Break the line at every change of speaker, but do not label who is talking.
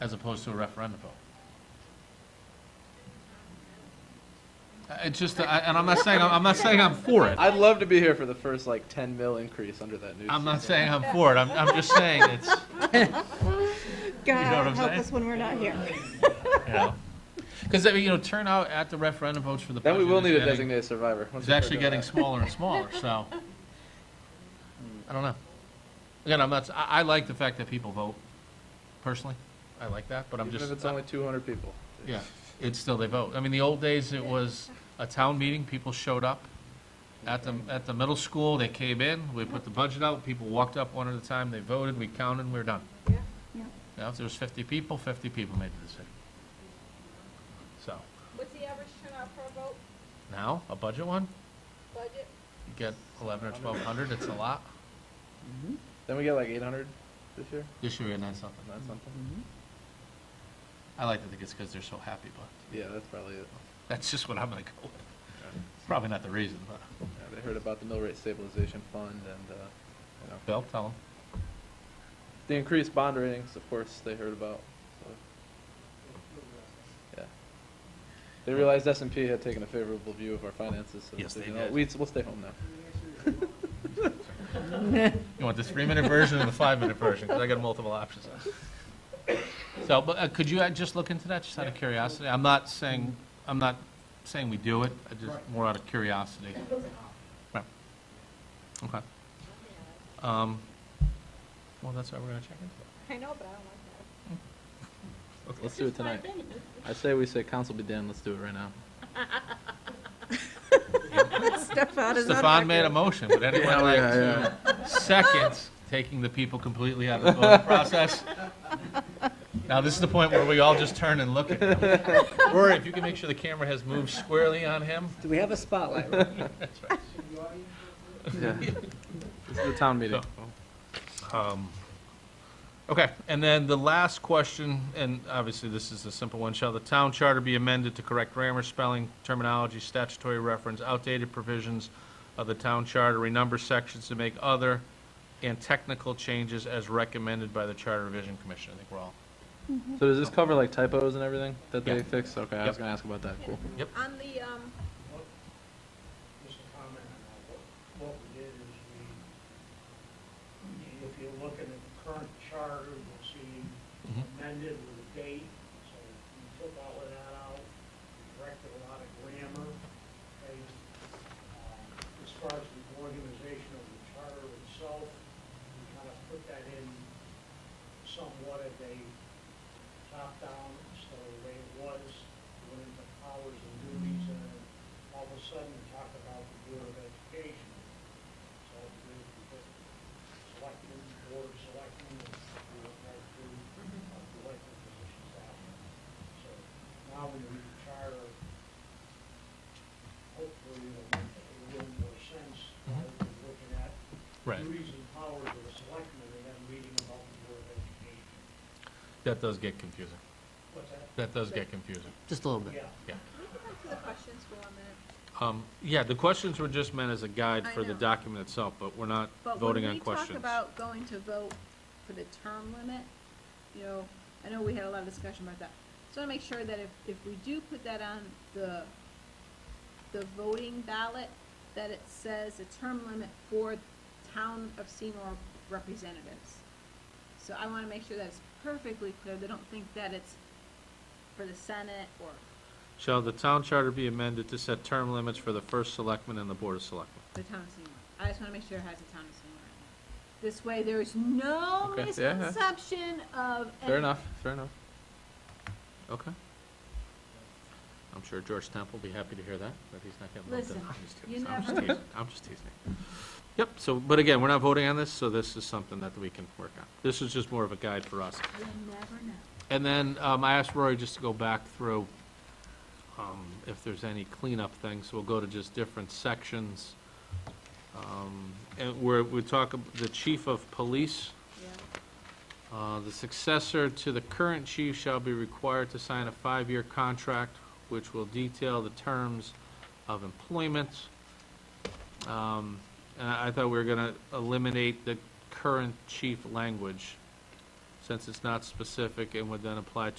as opposed to a referendum vote. Uh, It's just, I- and I'm not saying, I'm not saying I'm for it.
I'd love to be here for the first like 10 mil increase under that news.
I'm not saying I'm for it. I'm, I'm just saying it's, what I'm
God, help
saying?
us when we're not here.
you know. Because, you know, turnout at the referendum votes for the
Then
budget
we will need
is
a
getting,
designated survivor. once
is
we start
actually
doing
getting
that.
smaller and smaller, so. I don't know. Again, I'm not, I, I like the fact that people vote personally. I like that, but I'm
Even
just.
if it's only 200 people.
Yeah, it's still they vote. I mean, the old days, it was a town meeting, people showed up at the, at the middle school, they came in, we put the budget out, people walked up one at a time, they voted, we counted, we we're done.
Yeah.
Now, if there was fifty people, fifty people made the decision. So,
What's the average turnout per vote
now, a budget one,
budget?
you get eleven or twelve hundred, it's a lot.
Then we get like 800 this year.
This year we had nine something.
Not something.
Mm-hmm. I like to think it's because they're so happy, but
Yeah, that's probably it.
that's just what I'm gonna go with. Probably not the reason, but,
Yeah, they heard about the mill rate stabilization fund and uh, you know
Bill, tell them.
the increased bond ratings. Of course, they heard about. So. Yeah. They realized S and P had taken a favorable view of our finances. So
Yes,
said,
they
you know,
did.
We, we'll stay home now.
You want the three-minute version or the five-minute version? Because I got multiple options. So, but uh, could you uh, just look into that, just out of curiosity? I'm not saying, I'm not saying we do it, I just, more out of curiosity. Right. Okay. Um, Well, that's why we're going to check into
I know, but I don't like that.
Let's do it tonight. I say we say council be damned. Let's do it right now.
Stefan
it.
is not
Stefan made a
happy.
motion, would anyone like to second taking the people completely out of the voting process? Now, this is the point where we all just turn and look at him. Rory, if you can make sure the camera has moved squarely on him.
Do we have a spotlight?
That's right.
Yeah. This is the town meeting.
Um, Okay, and then the last question, and obviously this is a simple one, shall the town charter be amended to correct grammar, spelling, terminology, statutory reference, outdated provisions of the town charter, renumber sections to make other and technical changes as recommended by the Charter Revision Commission? I think we're all,
So does this cover like typos and everything that they
Yeah.
fix? Okay, I
Yep.
was gonna ask about that. Cool.
Yep.
On the, um,
just a comment on that. What, what we did is we, if you're looking at the current charter, you'll see
Mhm.
amended with a date, so we took all of that out, we corrected a lot of grammar. okay? Um, As far as the organization of the charter itself, we kind of put that in somewhat of a top-down, so the way it was, went into powers and duties, and then all of a sudden, we talk about the Bureau of Education. So we we put selectmen, board of selectmen, and we went right through uh, the elected positions out. So now when we charter, hopefully it'll make a little more sense, rather than looking at
Right.
duties and powers of the selectmen, and then reading about the Bureau of Education.
that does get confusing.
What's that?
That does get confusing.
Just a little bit.
Yeah.
Yeah.
can we go back to the questions for a minute?
Um, Yeah, the questions were just meant as a guide
I
for the
know.
document itself, but we're not voting on questions.
But when we talk about going to vote for the term limit, you know, I know we had a lot of discussion about that. So I wanna make sure that if, if we do put that on the, the voting ballot, that it says a term limit for town of Seymour representatives. So I wanna make sure that's perfectly clear, they don't think that it's for the Senate or,
Shall the town charter be amended to set term limits for the first selectman and the board of selectmen?
the town of Seymour. I just wanna make sure it has a town of Seymour. in it. This way, there is no
Okay, yeah, yeah.
misconception of.
Fair
any-
enough. Fair enough.
Okay. I'm sure George Temple will be happy to hear that, but he's not getting
Listen,
I'm just
you
teasing. I'm just
never-
teasing. I'm just teasing. Yep, so, but again, we're not voting on this, so this is something that we can work on. This is just more of a guide for us.
You never know.
And then, um, I asked Rory just to go back through, um, if there's any cleanup things, we'll go to just different sections. Um, and where we talk, ab- the chief of police,
Yeah.
Uh, The successor to the current chief shall be required to sign a five-year contract which will detail the terms of employment. Um, And I I thought we were going to eliminate the current chief language. since it's not specific and would then apply to